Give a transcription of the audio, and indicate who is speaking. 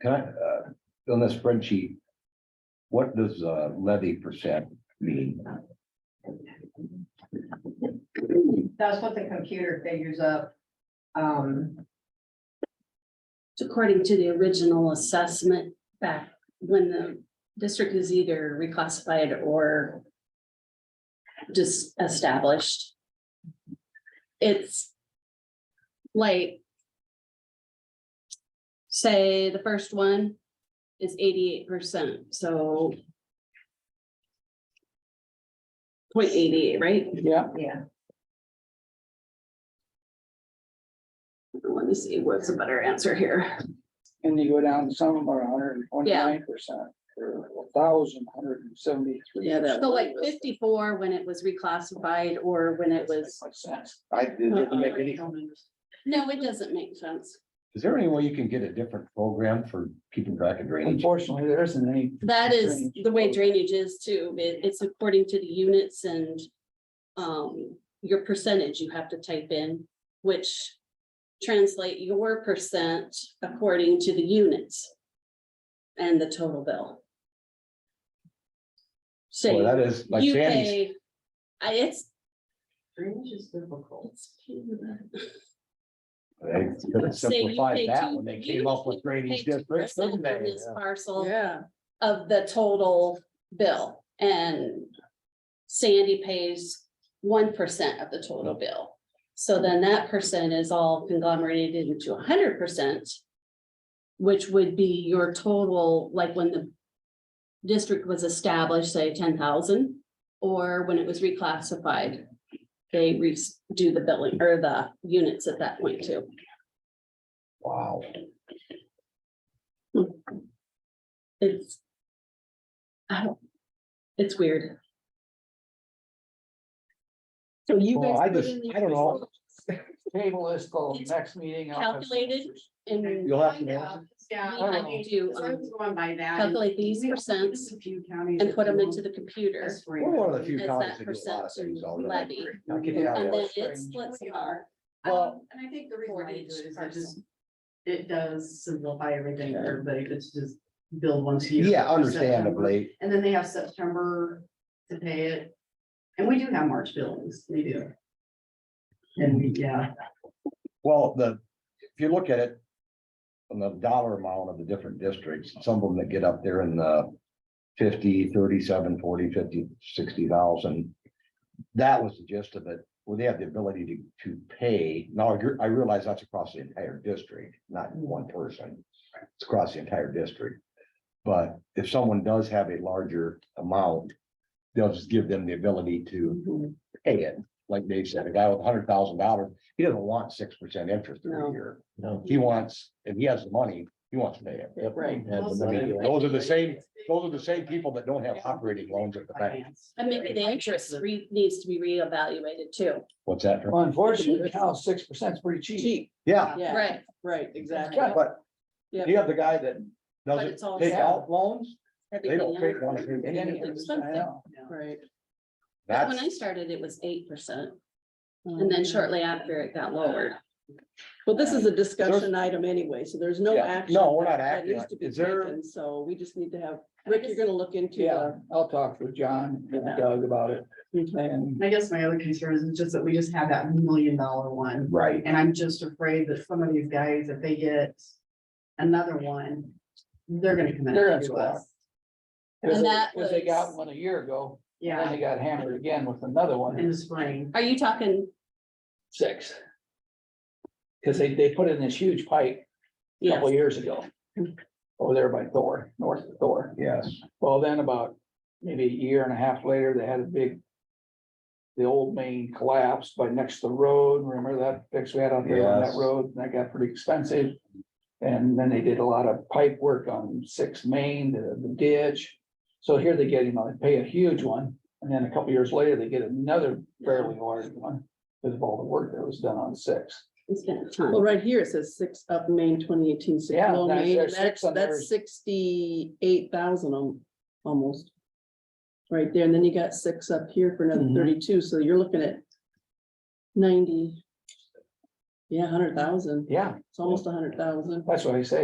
Speaker 1: Can I, uh, on the spreadsheet? What does uh, levy percent mean?
Speaker 2: That's what the computer figures up. Um,
Speaker 3: According to the original assessment back when the district is either reclassified or just established. It's like say the first one is eighty-eight percent, so 0.88, right?
Speaker 4: Yeah,
Speaker 2: yeah,
Speaker 3: Let me see, what's a better answer here?
Speaker 4: and you go down some are hundred and twenty-nine percent, or a thousand, hundred and seventy-three.
Speaker 3: Yeah, So like fifty-four when it was reclassified or when it was.
Speaker 4: I did not make any.
Speaker 3: No, it doesn't make sense.
Speaker 1: Is there any way you can get a different program for keeping track of drainage?
Speaker 4: Unfortunately, there isn't any.
Speaker 3: That is
Speaker 4: Drainage.
Speaker 3: the way drainage is too. It- it's according to the units and um, your percentage you have to type in, which translate your percent according to the units and the total bill.
Speaker 1: Well,
Speaker 3: So
Speaker 1: that is like
Speaker 3: you
Speaker 1: Sandy's,
Speaker 3: pay, I, it's.
Speaker 2: drainage is difficult.
Speaker 1: they could have
Speaker 3: Say you
Speaker 1: simplified
Speaker 3: pay
Speaker 1: that
Speaker 3: two-
Speaker 1: when they
Speaker 3: you
Speaker 1: came up with
Speaker 3: pay
Speaker 1: drainage
Speaker 3: 2%
Speaker 1: districts, didn't
Speaker 3: on
Speaker 1: they?
Speaker 3: this Parcel.
Speaker 4: Yeah.
Speaker 3: of the total bill and Sandy pays one percent of the total bill. So then that percent is all conglomerated into hundred percent, which would be your total, like when the district was established, say ten thousand, or when it was reclassified. They re- do the billing or the units at that point too.
Speaker 1: Wow,
Speaker 3: It's. I don't, it's weird.
Speaker 5: So you
Speaker 4: Well,
Speaker 5: guys.
Speaker 4: I
Speaker 5: put
Speaker 4: just-
Speaker 5: in the
Speaker 4: I don't know.
Speaker 5: results.
Speaker 4: Table is till
Speaker 3: It's
Speaker 4: next meeting. I'll have some
Speaker 3: calculated.
Speaker 4: answers.
Speaker 3: And
Speaker 1: you'll have to, know.
Speaker 3: We
Speaker 2: uh, Yeah.
Speaker 4: I
Speaker 2: I
Speaker 3: had
Speaker 4: don't know.
Speaker 2: mean,
Speaker 3: to,
Speaker 2: so I
Speaker 3: um,
Speaker 2: was going by that. and
Speaker 3: calculate these
Speaker 2: we-
Speaker 3: percents
Speaker 2: there's a few counties
Speaker 3: and
Speaker 2: that
Speaker 3: put them
Speaker 2: do
Speaker 3: into the computer.
Speaker 2: this for you.
Speaker 1: we're one of the few
Speaker 3: It's
Speaker 1: counties that
Speaker 3: that
Speaker 1: do a lot of
Speaker 3: percent
Speaker 1: things
Speaker 3: to
Speaker 1: already.
Speaker 3: levy.
Speaker 1: Not
Speaker 4: Yeah,
Speaker 1: kidding.
Speaker 3: And
Speaker 4: that
Speaker 3: then
Speaker 4: was
Speaker 3: it
Speaker 4: strange.
Speaker 3: splits
Speaker 2: We
Speaker 3: them
Speaker 2: are.
Speaker 1: Well-
Speaker 2: Um, and I think the reason
Speaker 3: For
Speaker 2: why they
Speaker 3: each
Speaker 2: do it is it
Speaker 3: parcel.
Speaker 2: just, it does simplify everything for everybody, it's just build once a year.
Speaker 1: Yeah,
Speaker 2: for September.
Speaker 1: understandably.
Speaker 2: And then they have September to pay it. And we do have March billings, we do. And we, yeah,
Speaker 1: Well, the, if you look at it. On the dollar amount of the different districts, some of them that get up there in the 50, 37, 40, 50, 60,000. That was the gist of it, where they have the ability to, to pay. Now, I gr- I realize that's across the entire district, not one person. It's across the entire district. But if someone does have a larger amount, they'll just give them the ability to pay it. Like Dave said, a guy with hundred thousand dollars, he doesn't want six percent interest
Speaker 3: No.
Speaker 1: every year.
Speaker 6: No.
Speaker 1: He wants, if he has the money, he wants to pay it.
Speaker 3: Right.
Speaker 6: And
Speaker 2: Also,
Speaker 6: the
Speaker 2: I
Speaker 6: money-
Speaker 2: think-
Speaker 1: Those are the same, those are the same people that don't have operating loans at the bank.
Speaker 2: finance.
Speaker 3: And maybe the interest re- needs to be reevaluated too.
Speaker 1: What's that? term?
Speaker 4: Well, Unfortunately, now six percent is pretty cheap.
Speaker 5: Cheap,
Speaker 1: Yeah,
Speaker 5: yeah. Right, exactly.
Speaker 1: yeah, but
Speaker 5: Yeah.
Speaker 1: you have the guy that
Speaker 3: But
Speaker 1: doesn't
Speaker 3: it's all
Speaker 1: take
Speaker 4: set.
Speaker 1: out loans, they don't
Speaker 3: Everything
Speaker 1: take
Speaker 3: else.
Speaker 1: one. cent.
Speaker 4: And then-
Speaker 3: Expensive.
Speaker 4: I know.
Speaker 5: Right.
Speaker 3: But When I
Speaker 1: That's,
Speaker 3: started, it was eight percent and
Speaker 5: Mm-hmm.
Speaker 3: then shortly after it got lowered.
Speaker 5: Well, this is a discussion item anyway, so there's no
Speaker 1: Yeah.
Speaker 5: action.
Speaker 1: No, we're not
Speaker 5: that- that
Speaker 1: acting
Speaker 5: needs
Speaker 1: on it.
Speaker 5: to be
Speaker 1: Is there-
Speaker 5: taken, So we just need to have, Rick, you're gonna look into.
Speaker 4: Yeah, I'll talk with John and Doug about it and.
Speaker 2: I guess my other concern is just that we just have that million dollar one.
Speaker 1: right,
Speaker 2: And I'm just afraid that some of these guys, if they get another one, they're gonna come
Speaker 4: They're
Speaker 2: in
Speaker 4: gonna
Speaker 2: to
Speaker 4: squawk.
Speaker 2: us.
Speaker 4: Cause
Speaker 3: And
Speaker 4: they-
Speaker 3: that
Speaker 4: 'cause they got
Speaker 3: was-
Speaker 4: one a year ago, then
Speaker 2: Yeah,
Speaker 4: they got hammered again with another one,
Speaker 2: in the spring.
Speaker 3: Are you talking?
Speaker 4: six. Cause they, they put in this huge pipe a couple
Speaker 3: Yes,
Speaker 4: years ago. Over there by Thor, north of Thor.
Speaker 1: yes.
Speaker 4: Well, then about maybe a year and a half later, they had a big. The old main collapsed by next to the road. Remember that fix we had out there on that
Speaker 1: Yes.
Speaker 4: road? And That got pretty expensive. And then they did a lot of pipe work on six main, the the ditch. So here they get, you know, they pay a huge one. And then a couple years later, they get another fairly large one. Because of all the work that was done on six.
Speaker 3: it's been a time.
Speaker 5: Well, right here, it says six up Main twenty eighteen. six
Speaker 4: Yeah,
Speaker 5: low
Speaker 4: that's-
Speaker 5: Main,
Speaker 4: there's
Speaker 5: That's,
Speaker 4: six on there.
Speaker 5: that's sixty-eight thousand almost. Right there, and then you got six up here for another
Speaker 1: Mm-hmm.
Speaker 4: Mhm.
Speaker 5: thirty-two, so you're looking at ninety. Yeah, hundred thousand,
Speaker 4: Yeah,
Speaker 5: it's almost a hundred thousand.
Speaker 4: that's what I say.